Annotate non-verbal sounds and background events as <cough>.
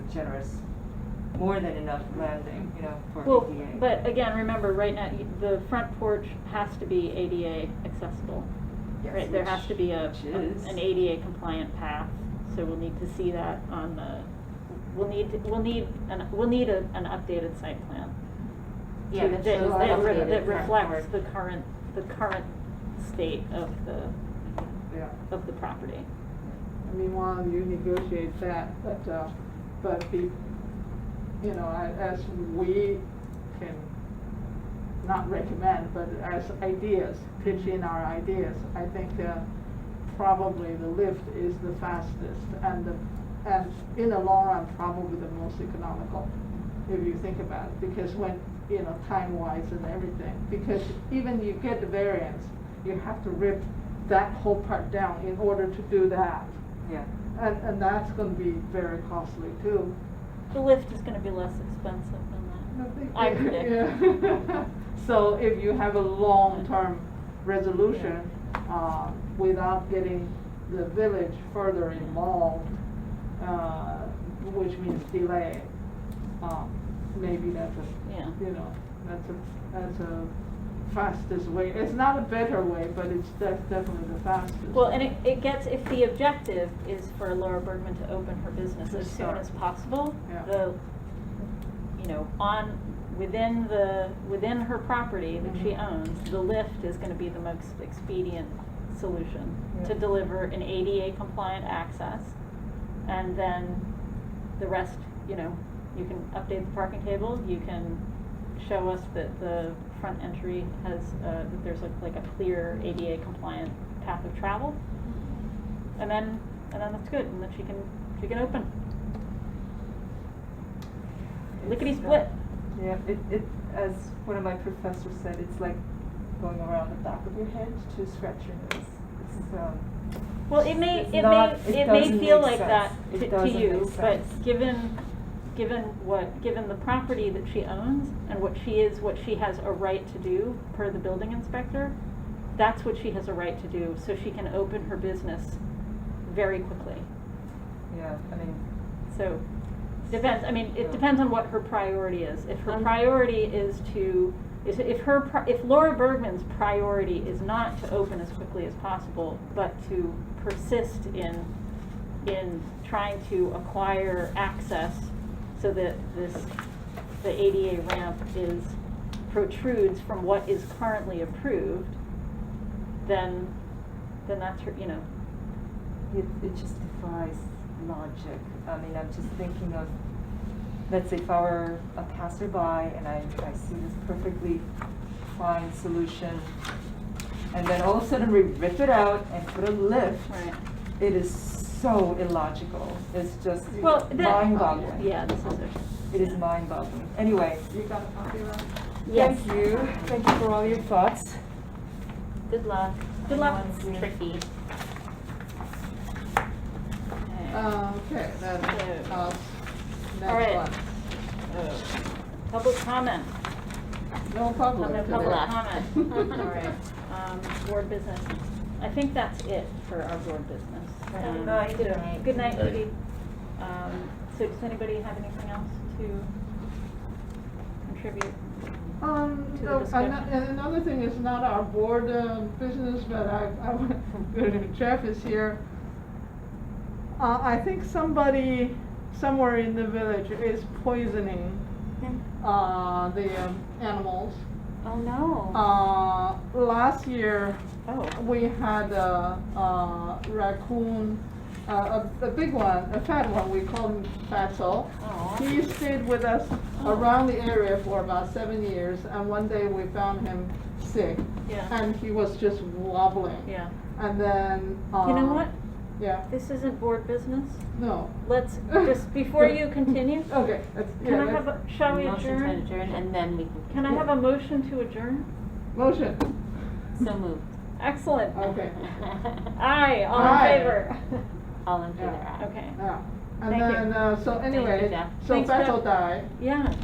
generous, more than enough landing, you know, for Well, ADA. but again, remember, right now, y- the front porch has to be ADA accessible. Yes, Right, there has which- to be a, which a- is- an ADA compliant path, so we'll need to see that on the, we'll need, we'll need, an- we'll need a- an updated site plan. Yeah, to- that shows that the re- updated That front reflects porch. the current, the current state of the, Yeah. of the property. I mean, while you negotiate that, but, uh, but be, you know, I- as we can, not recommend, but as ideas, pitch in our ideas, I think, uh, probably the lift is the fastest and the, and in the long run, probably the most economical, if you think about it, because when, you know, time-wise and everything, because even you get the variance, you have to rip that whole part down in order to do that. Yeah, And, and that's gonna be very costly too. The lift is gonna be less expensive than that. I predict. Yeah. <laughs> So if you have a long-term resolution, uh, without getting the village further involved, uh, which means delay, um, maybe that's a, Yeah. you know, that's a, that's a fastest way. It's not a better way, but it's def- definitely the fastest. Well, and it, it gets, if the objective is for Laura Bergman to open her business To as soon start. as possible, Yeah. the, you know, on, within the, within her property that she Mhm. owns, Um, the lift is gonna be the most expedient solution to Yeah. deliver an ADA compliant access. And then the rest, you know, you can update the parking table, you can show us that the front entry has, uh, that there's a- like a clear ADA compliant path of travel. And then, and then that's good, and then she can, she can open. Lickety split. uh, yeah, it, it, as one of my professors said, it's like going around the back of your head to scratch your nose. It's, um, Well, it may, It's it may, not- it it may doesn't feel make like that sense. It to, to doesn't you, make but sense. given, given what, given the property that she owns and what she is, what she has a right to do per the building inspector, that's what she has a right to do, so she can open her business very quickly. yeah, I mean, So, depends, I mean, it Yeah. depends on what her priority is. If her Um, priority is to, is, if her, pri- if Laura Bergman's priority is not to open as quickly as possible, but to persist in, in trying to acquire access so that this, the ADA ramp is, protrudes from what is currently approved, then, then that's her, you know, It, it just defies logic. I mean, I'm just thinking of, let's say if I were a passerby and I, I see this perfectly fine solution, and then all of a sudden we rip it out and put a lift. right? It is so illogical. It's just Well, that- mind boggling. Yeah, this is it. It is mind boggling. Anyway, You got a copy of that? Yes. thank you. Thank you for all your thoughts. Good luck. Good luck. That one's tricky. Uh, Okay, then, So- uh, All right. next one. Public comment. No public No today. public <laughs> left. comment. All right. Um, board business. I think that's it for our board business. Good Um, night. Good night. Good night, Thank you. Judy. Um, so does anybody have anything else to contribute? Um, to the no, discussion. ano- and another thing is not our board uh, business, but I, I, would- Jeff is here. Uh, I think somebody somewhere in the village is poisoning, Hmm. uh, the um, animals. Oh, no. Uh, last year, Oh. we had a, a raccoon, a, a, a big one, a fat one, we call him Fatso. Aw. He stayed with us Oh. around the area for about seven years, and one day we found him sick, Yeah, and he was just wobbling. yeah. And then, uh You know what? Yeah, This isn't board business. no, Let's, <laughs> just before you continue, okay, that's, yeah, can I that's- have, a shall we Motion to adjourn? adjourn, and then we can. Can I have a motion to adjourn? motion, So moved. Excellent. <laughs> okay, Aye, all in Aye. favor. <laughs> All in favor, Yeah. aye. Okay, yeah. Thank And you. then, uh, so you, anyway, Jeff. so Thanks, Jeff. Fatso died, yeah.